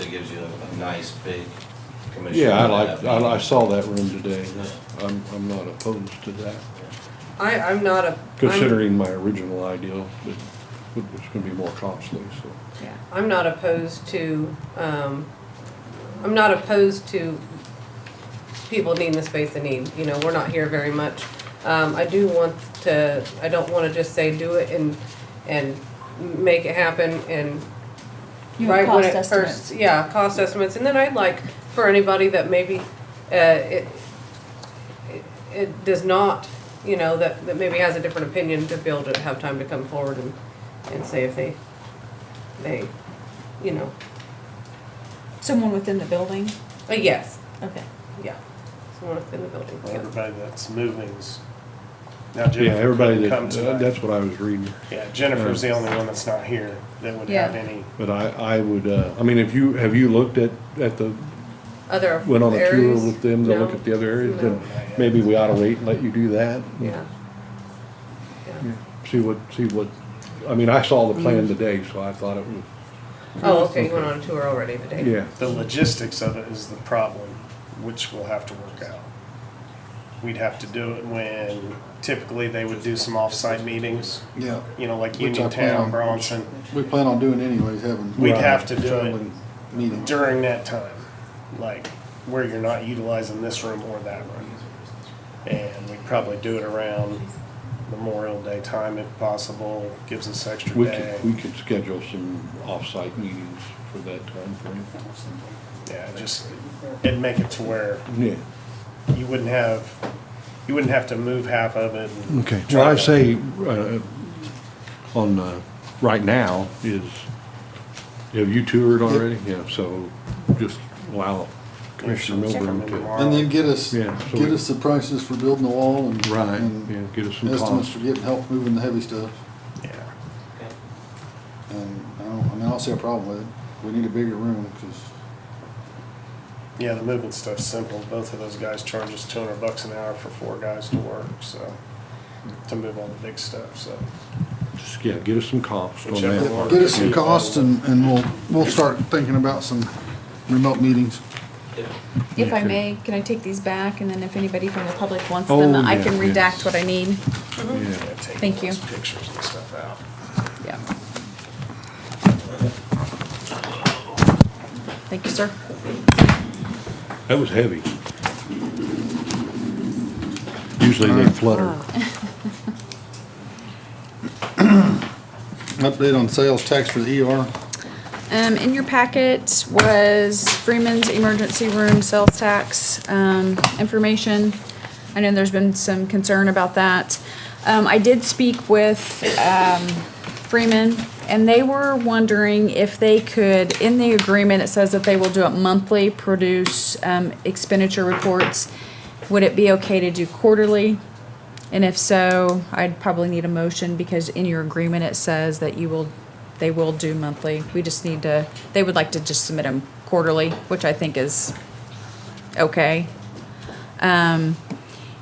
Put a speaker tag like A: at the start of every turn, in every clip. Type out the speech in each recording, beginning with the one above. A: It gives you a nice big commission.
B: Yeah, I like, I, I saw that room today. I'm, I'm not opposed to that,
C: I, I'm not a. I'm-
B: considering my original idea, but it was gonna be more costly, so.
C: Yeah, I'm not opposed to, um, I'm not opposed to people needing the space they need, you know, we're not here very much. Um, I do want to, I don't wanna just say do it and, and make it happen and
D: You have
C: right when
D: cost
C: it first,
D: estimates.
C: yeah, cost estimates, and then I'd like for anybody that maybe, uh, it, it- it does not, you know, that, that maybe has a different opinion to be able to have time to come forward and, and say if they, they, you know,
D: Someone within the building?
C: a yes,
D: Okay.
C: yeah, someone within the building,
E: Well,
C: yeah.
E: Everybody that's moving's, now Jennifer.
B: Yeah, everybody,
E: couldn't
B: that,
E: come tonight.
B: that's what I was reading,
E: Yeah, Jennifer's the only one that's not here that would have
D: Yeah.
E: any,
B: but I, I would, uh, I mean, if you, have you looked at, at the,
C: Other
B: went on a tour
C: areas?
B: with them to look
C: No.
B: at the other areas?
C: No.
B: Then maybe we ought to wait and let you do that.
C: Yeah. Yeah.
B: See what, see what, I mean, I saw the
C: Mm-hmm.
B: plan today, so I thought it was,
C: Oh, okay, you went on a tour already today.
B: yeah.
E: the logistics of it is the problem, which we'll have to work out. We'd have to do it when typically they would do some off-site meetings,
F: Yeah,
E: you know, like
F: Which I plan
E: Uniontown,
F: on.
E: Bronson,
F: we plan on doing anyways, having.
E: We'd have to do it.
F: traveling Meeting.
E: during that time. Like, where you're not utilizing this room or that room. And we'd probably do it around Memorial Day time if possible, gives us extra
B: We
E: day.
B: could, we could schedule some off-site meetings for that time frame.
E: Yeah, just, it'd make it to where
B: Yeah.
E: you wouldn't have, you wouldn't have to move half of it. and
B: Okay,
E: try
B: what I
E: to-
B: say, uh, on, uh, right now is, have you toured already? Yeah, so just allow Commissioner
E: Check
B: Milburn
E: them
B: to,
E: tomorrow.
F: And then get us,
B: Yeah, so
F: get
B: we-
F: us the prices for building the wall and.
B: right,
F: and
B: yeah, get us some
F: Estimates
B: costs.
F: for getting help moving the heavy stuff,
E: Yeah.
F: and I don't, I mean, I don't see a problem with it, we need a bigger room, cause,
E: Yeah, the movement stuff's simple. Both of those guys charge us two hundred bucks an hour for four guys to work, so, to move all the big stuff, so.
B: Just, yeah, get us some costs on
E: Whichever
B: that
E: one.
B: part.
F: get us some
E: Yeah.
F: costs and, and we'll, we'll start thinking about some remote meetings.
D: If I
B: Okay.
D: may, can I take these back, and then if anybody from the public wants
B: Oh,
D: them, I
B: yeah,
D: can
B: yes.
D: redact what I need?
E: yeah,
B: Yeah.
E: take
D: Thank
E: all
D: you.
E: those Pictures and stuff out.
D: Yeah. Thank you, sir.
B: That was heavy. Usually they flutter.
F: Update on sales tax for the ER,
D: Um, in your packet was Freeman's Emergency Room Sales Tax, um, information. I know there's been some concern about that. Um, I did speak with, um, Freeman, and they were wondering if they could, in the agreement, it says that they will do it monthly, produce, um, expenditure reports. Would it be okay to do quarterly? And if so, I'd probably need a motion because in your agreement, it says that you will, they will do monthly. We just need to, they would like to just submit them quarterly, which I think is okay. Um,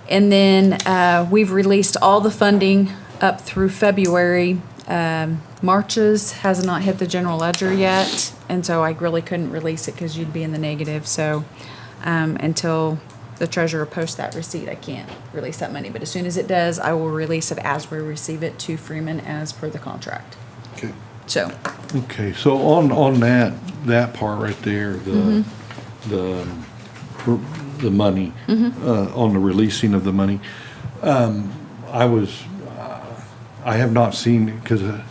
D: and then, uh, we've released all the funding up through February. Um, Marches has not hit the general ledger yet, and so I really couldn't release it because you'd be in the negative, so, um, until the treasurer posts that receipt, I can't release that money, but as soon as it does, I will release it as we receive it to Freeman as per the contract.
F: okay,
D: So,
B: Okay, so on, on that, that part right there, the,
D: Mm-hmm.
B: the, um, r- the money, uh, on the releasing of the money, um, I was, uh, I have not seen, cause uh,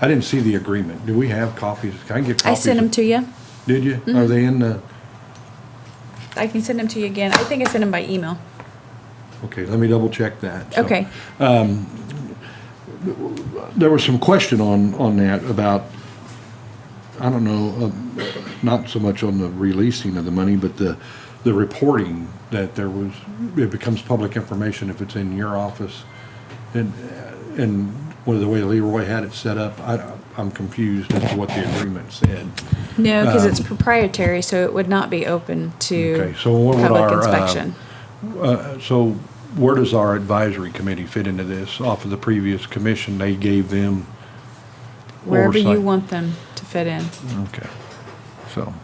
B: I didn't see the agreement. Do we have copies? Can I get
D: I
B: copies?
D: sent them to Mm-hmm. you.
B: Did you? Are they in the,
D: I can send them to you again. I think I sent them by email.
B: okay, let me double check that. so.
D: Okay.
B: there was some question on, on that about, I don't know, uh, not so much on the releasing of the money, but the, the reporting that there was, it becomes public information if it's in your office. And, and with the way Leroy had it set up, I, I'm confused as to what the agreement said.
D: No, because it's proprietary, so it would not be open to
B: Uh, Okay, so what would
D: public
B: our, uh,
D: inspection.
B: So where does our advisory committee fit into this? Off of the previous commission, they gave them
D: Wherever you
B: oversight.
D: want them to fit in.
B: Okay, so.